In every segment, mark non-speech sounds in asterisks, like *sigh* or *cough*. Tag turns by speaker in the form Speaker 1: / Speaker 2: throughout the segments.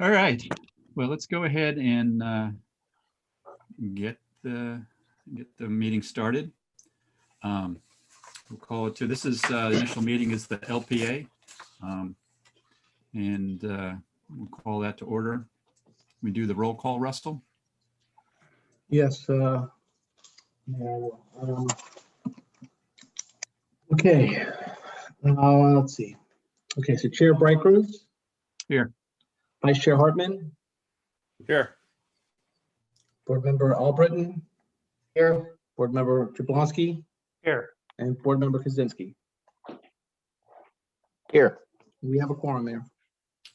Speaker 1: All right, well, let's go ahead and uh, get the, get the meeting started. Um, We'll call it to, this is, uh, the initial meeting is the LPA. um, And uh, we'll call that to order. We do the roll call, Russell?
Speaker 2: Yes. uh, yeah, um, Okay, uh, let's see. Okay, so Chair Bright Cruz?
Speaker 1: Here.
Speaker 2: Vice Chair Hartman,
Speaker 3: Here.
Speaker 2: Board Member Albritton? Here. Board Member Jablonski
Speaker 3: Here.
Speaker 2: and Board Member Kaczynski.
Speaker 3: Here.
Speaker 2: We have a quorum there.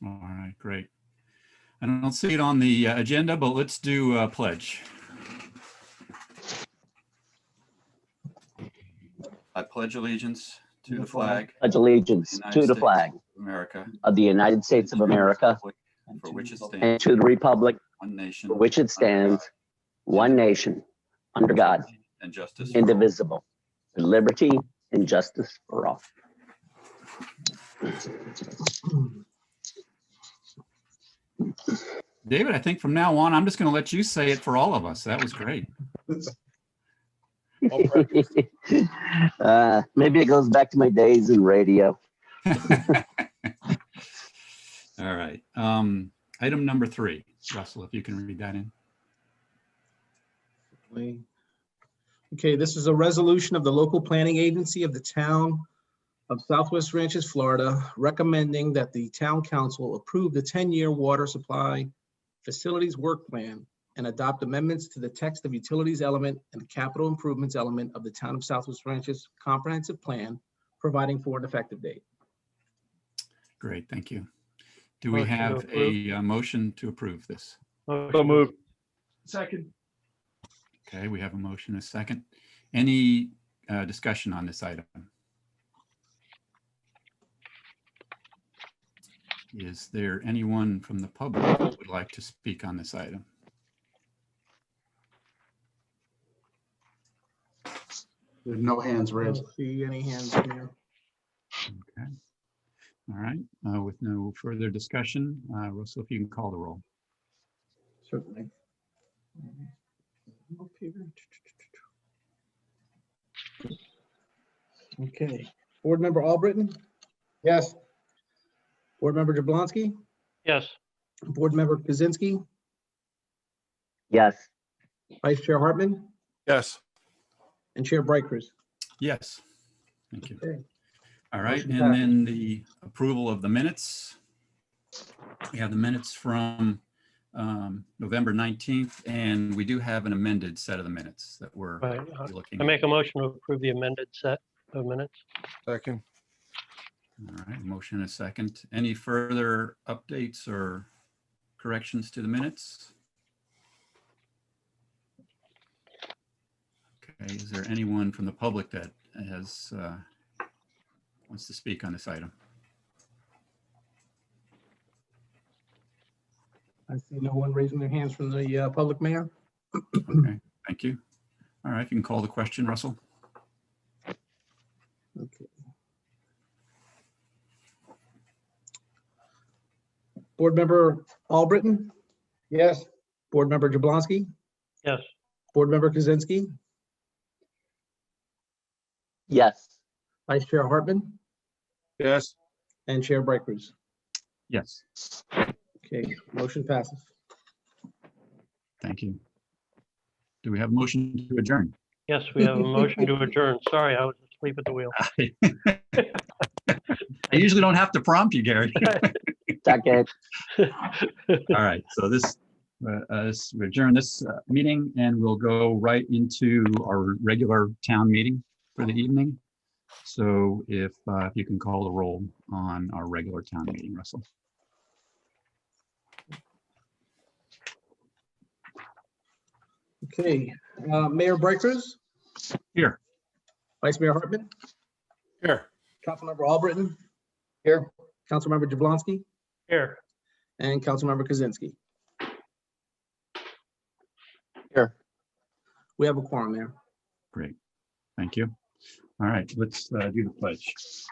Speaker 1: All right, great. I don't see it on the uh, agenda, but let's do uh, pledge. I pledge allegiance to the flag
Speaker 4: pledge allegiance
Speaker 1: United
Speaker 4: to the
Speaker 1: States.
Speaker 4: flag
Speaker 1: of America.
Speaker 4: of the United States of America
Speaker 1: For which it
Speaker 4: and
Speaker 1: stands.
Speaker 4: to the republic
Speaker 1: One nation.
Speaker 4: for which it stands, one nation, under God,
Speaker 1: And justice. for all.
Speaker 4: indivisible, with liberty and justice for all.
Speaker 1: David, I think from now on, I'm just going to let you say it for all of us. That was great. *laughs*
Speaker 4: *laughs* Uh, Maybe it goes back to my days in radio.
Speaker 1: All right. Um, Item number three, Russell, if you can read that in.
Speaker 2: Wait. Okay, this is a resolution of the local planning agency of the town of Southwest Ranches, Florida, recommending that the town council approve the 10-year water supply facilities work plan and adopt amendments to the text of utilities element and the capital improvements element of the town of Southwest Ranches comprehensive plan, providing for an effective date.
Speaker 1: Great, thank you. Do we
Speaker 5: Motion to
Speaker 1: have a
Speaker 5: approve.
Speaker 1: uh, motion to approve this?
Speaker 5: So
Speaker 3: So moved.
Speaker 5: Second.
Speaker 1: Okay, we have a motion, a second. Any uh, discussion on this item? Is there anyone from the public who would like to speak on this item?
Speaker 6: There's no hands
Speaker 2: I
Speaker 6: raised.
Speaker 2: don't See any hands in there?
Speaker 1: Okay. All right, uh, with no further discussion, uh, Russell, if you can call the roll.
Speaker 2: Certainly. Mm-hmm. Okay, Board Member Albritton? Yes. Board Member Jablonski,
Speaker 5: Yes.
Speaker 2: Board Member Kaczynski,
Speaker 4: Yes,
Speaker 2: Vice Chair Hartman,
Speaker 3: Yes.
Speaker 2: and Chair Bright Cruz.
Speaker 1: Yes. Thank you.
Speaker 2: Okay.
Speaker 1: All right,
Speaker 2: Motion
Speaker 1: and
Speaker 2: passed.
Speaker 1: then the approval of the minutes. We have the minutes from um, November 19th, and we do have an amended set of the minutes that we're
Speaker 5: Right.
Speaker 1: looking.
Speaker 5: I
Speaker 1: at.
Speaker 5: make a motion to approve the amended set of minutes.
Speaker 3: Second.
Speaker 1: All right, motion and a second. Any further updates or corrections to the minutes? Okay, is there anyone from the public that has, uh, wants to speak on this item?
Speaker 2: I see no one raising their hands from the uh, public mayor.
Speaker 1: Okay, thank you. All right, you can call the question, Russell.
Speaker 2: Okay. Board Member Albritton? Yes. Board Member Jablonski?
Speaker 5: Yes.
Speaker 2: Board Member Kaczynski,
Speaker 4: yes,
Speaker 2: Vice Chair Hartman,
Speaker 3: Yes.
Speaker 2: and Chair Bright Cruz.
Speaker 1: Yes.
Speaker 2: Okay, motion passes.
Speaker 1: Thank you. Do we have a motion to adjourn?
Speaker 5: Yes, we have a motion to adjourn. Sorry, I was asleep at the wheel. *laughs*
Speaker 1: I usually don't have to prompt you, *laughs* Gary.
Speaker 4: second,
Speaker 1: All right, so this, uh, uh, this- we adjourn this uh, meeting and we'll go right into our regular town meeting for the evening. So if uh, if you can call the roll on our regular town meeting, Russell.
Speaker 2: Okay, uh, Mayor Bright Cruz,
Speaker 1: Here,
Speaker 2: Vice Mayor Hartman,
Speaker 3: Here.
Speaker 2: Councilmember Albritton. Here. Councilmember Jablonski
Speaker 5: Here.
Speaker 2: and Councilmember Kaczynski.
Speaker 4: Here.
Speaker 2: We have a quorum there.
Speaker 1: great. Thank you. All right, let's uh, do the pledge.